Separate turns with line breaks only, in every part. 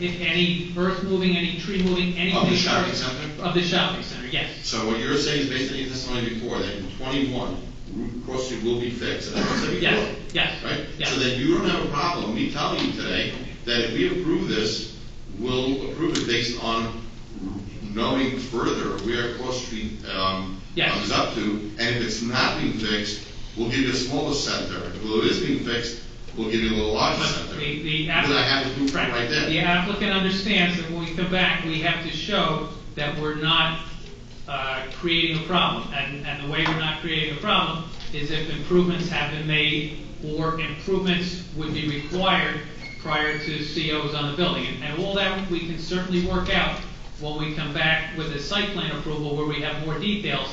If any earth moving, any tree moving, anything.
Of the shopping center?
Of the shopping center, yes.
So what you're saying is based on your testimony before, that in twenty-one, Route Cross Street will be fixed, and I said before.
Yes, yes,
Right?
yes.
So then you don't have a problem, me telling you today, that if we approve this, we'll approve it based on knowing further where Cross Street, um,
Yes.
comes up to, and if it's not being fixed, we'll give you a smaller center, if it is being fixed, we'll give you a little larger
But
center.
the, the
Because I have
applicant.
the blueprint right there.
The applicant understands that when we come back, we have to show that we're not, uh, creating a problem. And, and the way we're not creating a problem is if improvements have been made or improvements would be required prior to COs on the building. And- And all that, we can certainly work out when we come back with a site plan approval where we have more details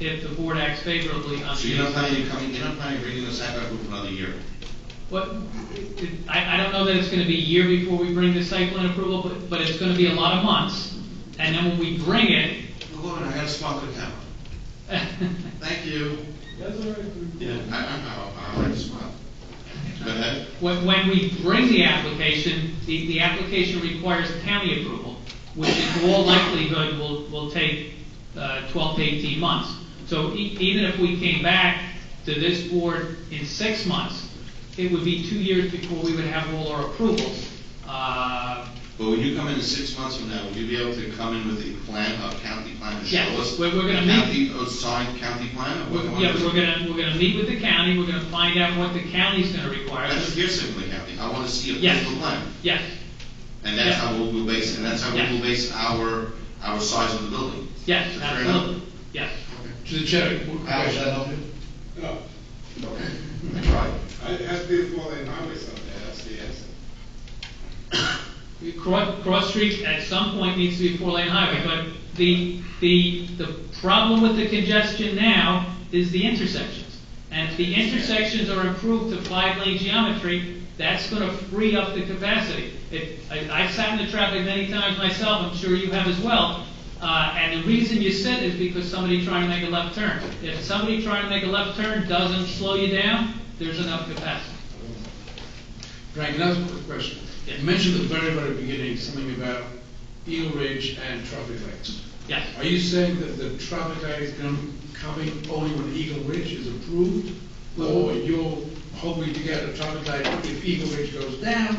if the board acts favorably on the.
So you're not planning, on coming, you're not planning on bringing this back up for another year?
What, I, I don't know that it's gonna be a year before we bring the site plan approval, but, but it's gonna be a lot of months. And then when we bring it,
Hold on, I gotta swallow the camera. Thank you. Yeah, I, I, I, I like to smile. Go ahead.
when, when we bring the application, the, the application requires county approval, which in all likelihood will, will take, uh, twelve to eighteen months. So e- even if we came back to this board in six months, it would be two years before we would have all our approvals. Uh,
But when you come in six months from now, will you be able to come in with a plan, a county plan to
Yeah,
show us?
we're- we're gonna
a County, a signed county plan? or
We're-
what- what
Yeah,
is it?
we're gonna, we're gonna meet with the county, we're gonna find out what the county's gonna require.
That's hearsay from the county, I wanna see a
Yes.
physical plan.
Yes,
And that's
Yeah.
how we'll we'll base, and that's how
Yeah.
we'll base our, our size of the building.
yes,
Is that fair enough?
absolutely, yes.
To the chair, what
How does
question?
that help you?
No,
I tried.
I asked before they highway something, that's the answer.
Cross, Cross Street at some point needs to be four-lane highway, but the, the, the problem with the congestion now is the intersections. And if the intersections are improved to five-lane geometry, that's gonna free up the capacity. It, I, I've sat in the traffic many times myself, I'm sure you have as well, uh, and the reason you sit is because somebody trying to make a left turn. If somebody trying to make a left turn doesn't slow you down, there's enough capacity.
Frank, another quick question.
Yes.
You mentioned at the very, very beginning something about Eel Ridge and traffic lights.
Yes.
Are you saying that the traffic light is com- coming only when Eagle Ridge is approved? Or you're hoping to get a traffic light if Eagle Ridge goes down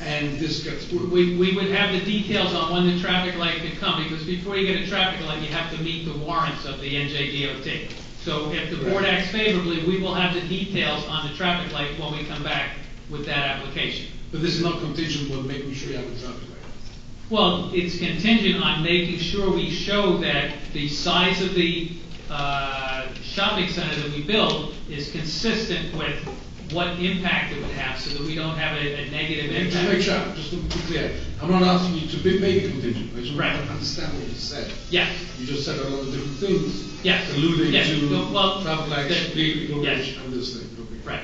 and this gets approved?
We, we would have the details on when the traffic light could come, because before you get a traffic light, you have to meet the warrants of the NJDOT. So if the board acts favorably, we will have the details on the traffic light when we come back with that application.
But this is not contingent on making sure you have a traffic light.
Well, it's contingent on making sure we show that the size of the uh, shopping center that we build is consistent with what impact it would have, so that we don't have a a negative impact.
Just to make sure, just to be clear, I'm not asking you to be made contingent, I just want
Right.
to understand what you said.
Yes.
You just said a lot of different things.
Yes.
Alluding
Yes.
to
Well, well,
traffic lights,
that-
vehicle
yes.
range, and this thing. okay.
Right.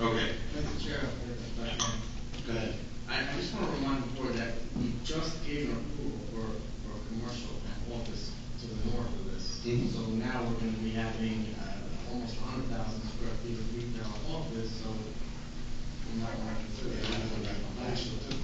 Okay,
Mr. Chair, if I may,
go ahead.
I, I just want to remind the board that we just gave an approval for, for a commercial office to the north of this.
Mhm.
So now we're going to be having, uh, almost hundred thousand square feet of retail office, so we might want to consider that as a financial too,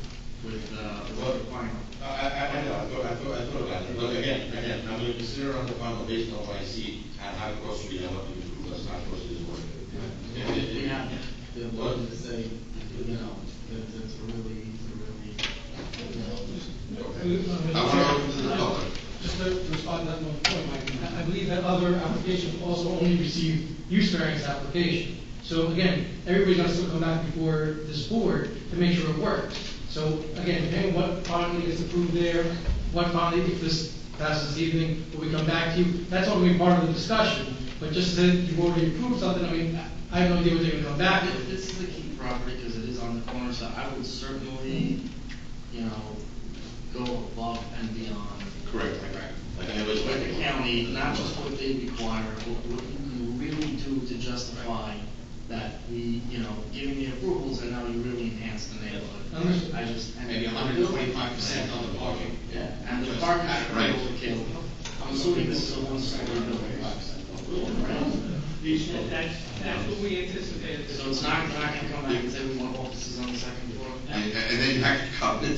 with, uh,
Well-
with the final.
I, I, I know, I thought, I thought, I thought about it, but again, again, I'm gonna consider on the final based on what I see, and how close we are, what we improve, us, how close is working. Yeah, yeah,
We
yeah.
have the ability to say, you know, that, that's a really, to really, you know,
I wanna open to the public.
Just to respond to that one point, Mike, I- I believe that other applications also only received use variance application. So again, everybody's gonna still come back before this board to make sure it works. So again, depending what finally gets approved there, what finally, if this passes this evening, will we come back to you? That's all gonna be part of the discussion, but just that you've already approved something, I mean, I I have no idea what they're gonna come back
Th-
with.
This is a key property because it is on the corner, so I would certainly, you know, go above and beyond.
Correct. Like, I was-
With the county, not just what they require, what, what you can really do to justify that we, you know, giving the approvals and now you really enhance the neighborhood.
Understood.
I just. and-
Maybe 125% on the parking.
Yeah, and the parking
Right.
is overkill. I'm assuming this is a one-story building. Right?
That's, that's what we anticipated.
So it's not, not gonna come back and say we want offices on the second floor?
And, and then you have to come and